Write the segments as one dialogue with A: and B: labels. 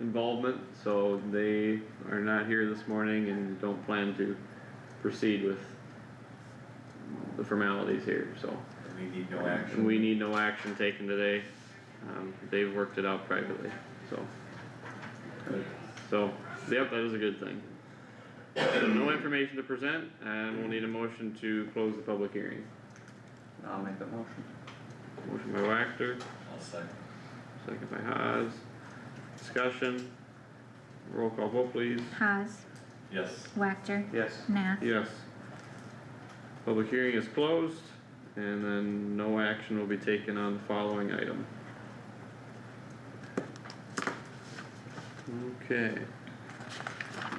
A: involvement, so they are not here this morning and don't plan to proceed with the formalities here, so.
B: We need no
A: And
B: action.
A: we need no action taken today, um, they've worked it out privately, so. So, yep, that is a good thing. So no information to present, and we'll need a motion to close the public hearing.
C: I'll make the motion.
A: Motion by Wactor,
B: I'll second.
A: second by Haas, discussion, roll call vote please.
D: Haas,
B: Yes.
D: Wactor,
C: Yes.
D: Nath.
A: Yes. Public hearing is closed, and then no action will be taken on the following item. Okay.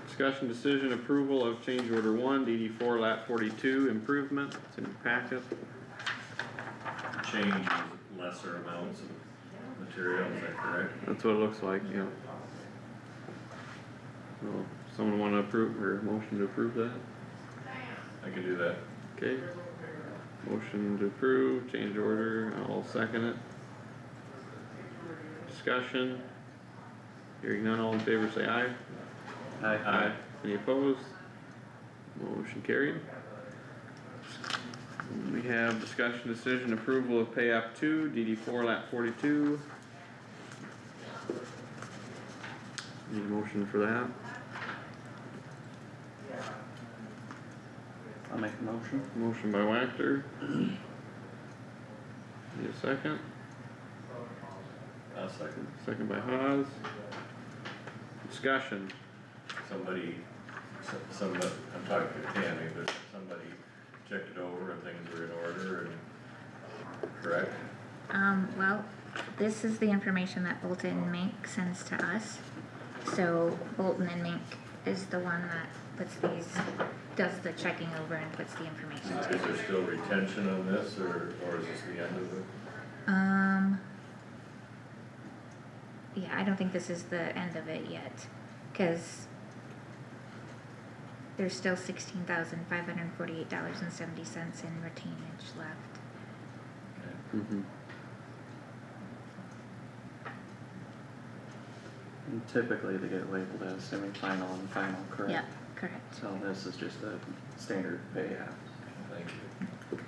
A: Discussion decision approval of change order one, DD four lap forty-two improvement, it's in your packet.
B: Change lesser amounts of material, is that correct?
A: That's what it looks like, yeah. Well, someone wanna approve, or motion to approve that?
B: I can do that.
A: Okay. Motion to approve, change order, I'll second it. Discussion. Hearing none, all in favor say aye.
C: Aye.
A: Any opposed? Motion carried. We have discussion decision approval of pay app two, DD four lap forty-two. Need a motion for that?
C: I'll make the motion.
A: Motion by Wactor. Need a second?
B: I'll second.
A: Second by Haas. Discussion,
B: Somebody, some- somebody, I'm talking to Tammy, but somebody checked it over and things were in order and, uh, correct?
D: Um, well, this is the information that Bolton and Mink sends to us. So Bolton and Mink is the one that puts these, does the checking over and puts the information
B: Is
D: to.
B: there still retention on this or, or is this the end of it?
D: Um. Yeah, I don't think this is the end of it yet, cause there's still sixteen thousand five hundred and forty-eight dollars and seventy cents in retainage left.
A: Uh,
C: And Typically, they get labeled as semi-final and final, correct?
D: Yep, correct.
C: So this is just a standard pay app.
B: Thank you.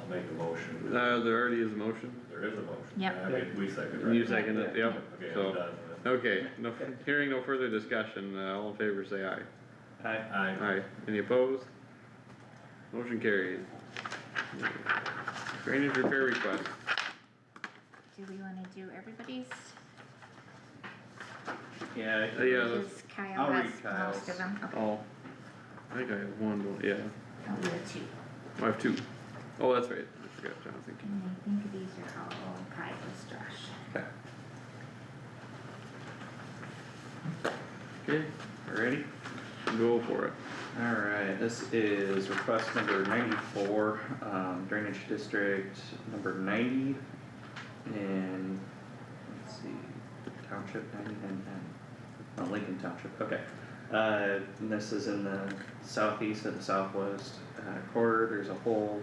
B: I'll make a
A: uh,
B: motion.
A: there already is a motion,
B: There is a motion.
D: Yep.
B: I mean, we second, right?
A: you second it, yep,
B: Okay, I'm
A: so,
B: done with it.
A: okay, no, hearing no further discussion, uh, all in favor say aye.
C: Aye.
B: Aye.
A: Aye, any opposed? Motion carried. Drainage repair request,
D: Do we wanna do everybody's?
C: Yeah.
A: Uh, yeah, that's,
D: Cause Kyle
C: I'll read
D: has most
C: Kyle's.
D: of them, okay,
A: all, I think I have one, but- yeah,
D: I'll do two.
A: I have two. Oh, that's right, I forgot, Jonathan.
D: And I think these are all Kyle's, Josh.
A: Okay,
C: Ready?
A: go for it.
C: Alright, this is request number ninety-four, um, drainage district number ninety. And, let's see, township ninety-nine, no, Lincoln Township, okay. Uh, and this is in the southeast of the southwest uh, quarter, there's a hole,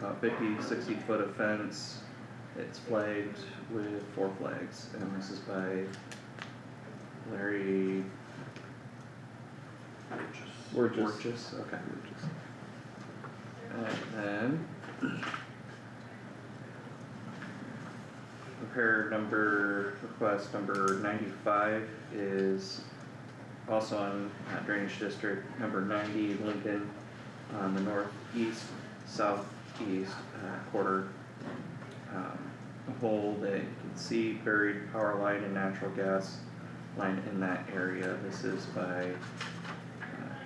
C: about 50, 60 foot of fence. It's flagged with four flags, and this is by Larry
A: We're just.
C: Borges, okay. And then. Repair number, request number ninety-five is also on uh, drainage district number ninety, Lincoln, on the northeast, southeast uh, quarter. Um, A hole that you can see buried power line and natural gas line in that area. This is by uh,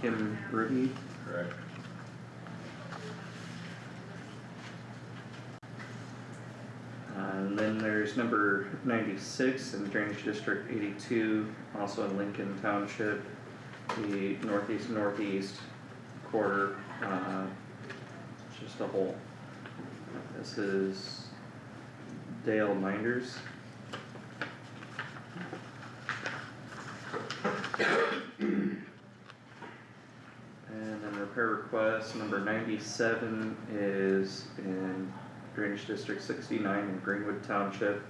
C: Kim Ruby.
B: Correct.
C: Uh, And then there's number ninety-six in Drainage District eighty-two, also in Lincoln Township, the northeast northeast quarter, uh, it's just a hole. This is Dale Minders. And then repair request number ninety-seven is in Drainage District sixty-nine in Greenwood Township.